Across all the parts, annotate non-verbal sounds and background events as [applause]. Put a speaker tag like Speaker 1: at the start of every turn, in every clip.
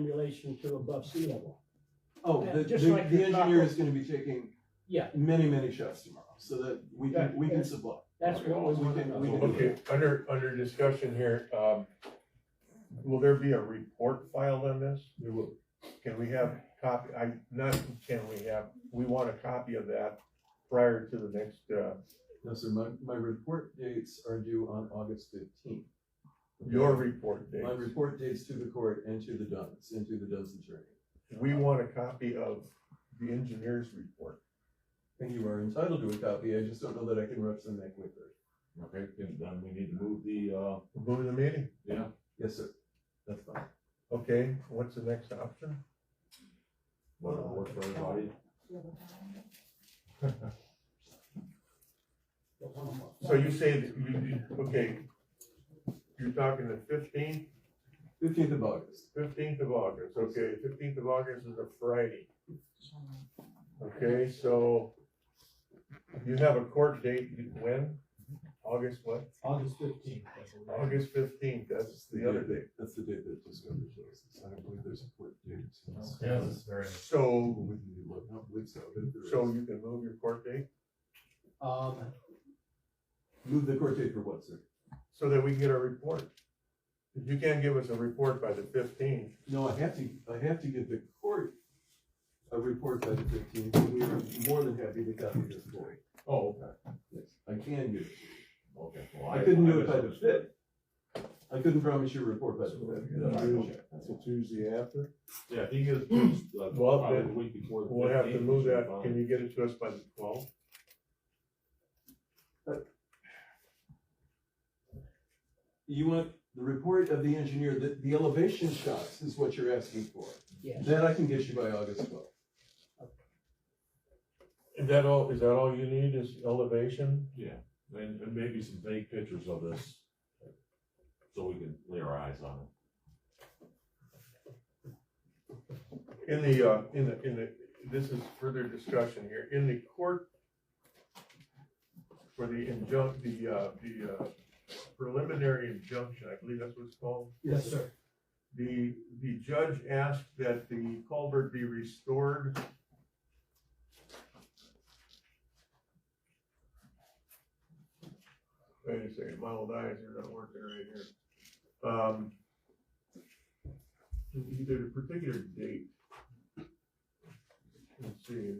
Speaker 1: in relation to above sea level.
Speaker 2: Oh,
Speaker 1: Yeah,
Speaker 2: the, the,
Speaker 1: just like
Speaker 2: the
Speaker 1: your
Speaker 2: engineer
Speaker 1: clockwork.
Speaker 2: is gonna be taking
Speaker 1: Yeah,
Speaker 2: many, many shots tomorrow, so that we
Speaker 1: Right,
Speaker 2: can, we can
Speaker 1: and-
Speaker 2: supply.
Speaker 1: that's what we
Speaker 2: We
Speaker 1: want to
Speaker 2: can- we
Speaker 1: know.
Speaker 2: can-
Speaker 3: Okay, under, under discussion here, um, will there be a report filed on this? There will- Can we have copy, I, not can we have, we want a copy of that prior to the next, uh,
Speaker 2: No, sir, my, my report dates are due on August fifteenth.
Speaker 3: your report date.
Speaker 2: My report dates to the court and to the Duns, and to the Duns attorney.
Speaker 3: We want a copy of the engineer's report.
Speaker 2: I think you are entitled to a copy, I just don't know that I can rush them that quickly.
Speaker 4: Okay, then then we need to move the, uh,
Speaker 3: We're moving the meeting,
Speaker 4: yeah,
Speaker 2: Yes, sir, that's fine.
Speaker 3: okay, what's the next option?
Speaker 4: whatever works for
Speaker 1: [laughs]
Speaker 4: everybody. [laughs]
Speaker 3: So you say, that you, you- okay, you're talking the fifteenth,
Speaker 2: Fifteenth of August,
Speaker 3: Fifteenth of August, okay, fifteenth of August is a Friday. Okay, so you have a court date, you- when? August what?
Speaker 5: August fifteenth.
Speaker 3: August fifteenth, that's the other date.
Speaker 2: that's the date that discovery closes, I don't believe there's a court date.
Speaker 5: very.
Speaker 3: So,
Speaker 2: We can look, I don't believe so, but there
Speaker 3: so
Speaker 2: is.
Speaker 3: you can move your court date,
Speaker 5: Um,
Speaker 2: Move the court date for what, sir?
Speaker 3: so that we can get a report. If you can't give us a report by the fifteenth,
Speaker 2: No, I have to, I have to give the court a report by the fifteenth, and we are more than happy to copy this for you.
Speaker 3: oh, okay.
Speaker 2: Yes, I can give it.
Speaker 4: Okay. well,
Speaker 2: I couldn't do it by the
Speaker 4: misunderstood.
Speaker 2: fifth. I couldn't promise you a report by the fifth.
Speaker 3: So Tuesday after?
Speaker 4: Yeah, if he gives, us, uh,
Speaker 3: Well,
Speaker 4: probably the
Speaker 3: then
Speaker 4: week before. the
Speaker 3: We'll have to
Speaker 4: 15th,
Speaker 3: move
Speaker 4: we should
Speaker 3: that,
Speaker 4: find-
Speaker 3: can you get it to us by the twelfth?
Speaker 2: You want the report of the engineer, the, the elevation shots is what you're asking for.
Speaker 1: Yes.
Speaker 2: That I can get you by August twelfth.
Speaker 3: Is that all, is that all you need is elevation?
Speaker 4: Yeah, and, and maybe some vague pictures of this, so we can lay our eyes on it.
Speaker 3: In the, uh, in the, in the, this is further discussion here, in the court for the injunct, the, uh, the, uh, preliminary injunction, I believe that's what it's called.
Speaker 1: Yes, sir.
Speaker 3: The, the judge asked that the culvert be restored. Wait a second, my old eyes are not working right here. Um, either a particular date. Let's see.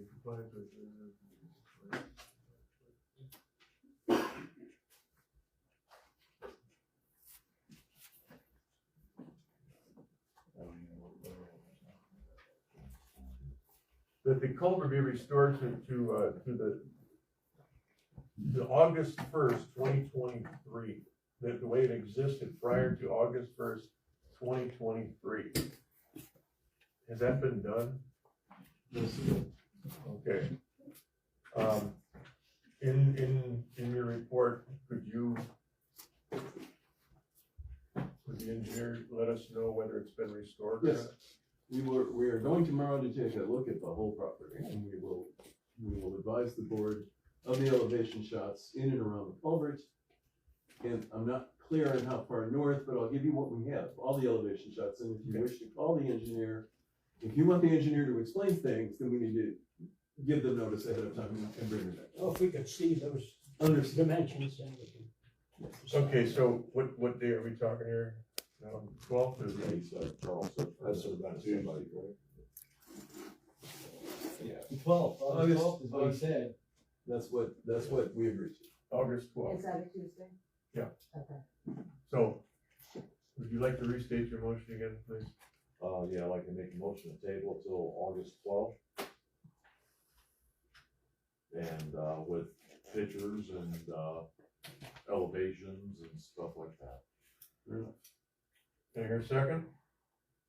Speaker 3: That the culvert be restored to, to, uh, to the, to August first, twenty twenty-three, that the way it existed prior to August first, twenty twenty-three. Has that been done? Okay. Um, in, in, in your report, could you, could the engineer let us know whether it's been restored? or
Speaker 2: Yes.
Speaker 3: not?
Speaker 2: We were, we are going tomorrow to take a look at the whole property, and we will, we will advise the board of the elevation shots in and around the culvert. And I'm not clear on how far north, but I'll give you what we have, all the elevation shots, and if you wish to call the engineer, if you want the engineer to explain things, then we need to give them notice ahead of time and bring them back.
Speaker 1: Well, if we could see those
Speaker 2: Understood.
Speaker 1: dimensions, then we can.
Speaker 3: Okay, so what, what day are we talking here? Um, Twelfth is the
Speaker 4: He's, uh, Charles said-
Speaker 3: That's about Tuesday.
Speaker 5: Twelve, August
Speaker 2: August-
Speaker 5: twelfth is what he
Speaker 2: August-
Speaker 5: said.
Speaker 2: That's what, that's what we agreed to.
Speaker 3: August twelfth.
Speaker 6: Is that a Tuesday?
Speaker 3: Yeah.
Speaker 6: Okay.
Speaker 3: So, would you like to restate your motion again, please?
Speaker 4: Uh, yeah, I'd like to make a motion to table till August twelfth. And, uh, with pictures and, uh, elevations and stuff like that.
Speaker 3: Can I hear a second?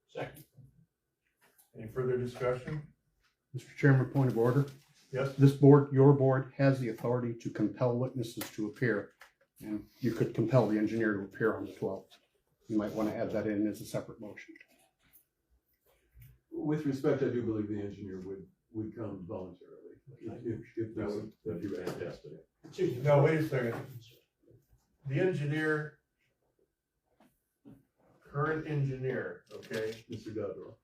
Speaker 5: Second.
Speaker 3: Any further discussion?
Speaker 7: Mr. Chairman, point of order.
Speaker 3: Yes?
Speaker 7: This board, your board, has the authority to compel witnesses to appear. And you could compel the engineer to appear on the twelfth. You might want to add that in as a separate motion.
Speaker 2: With respect, I do believe the engineer would, would come voluntarily, if, if- if that would,
Speaker 4: That'd
Speaker 2: if
Speaker 4: be
Speaker 2: you asked.
Speaker 4: fantastic.
Speaker 1: Excuse me.
Speaker 3: No, wait a second. The engineer
Speaker 8: current engineer, okay,
Speaker 3: Mr. Godrow.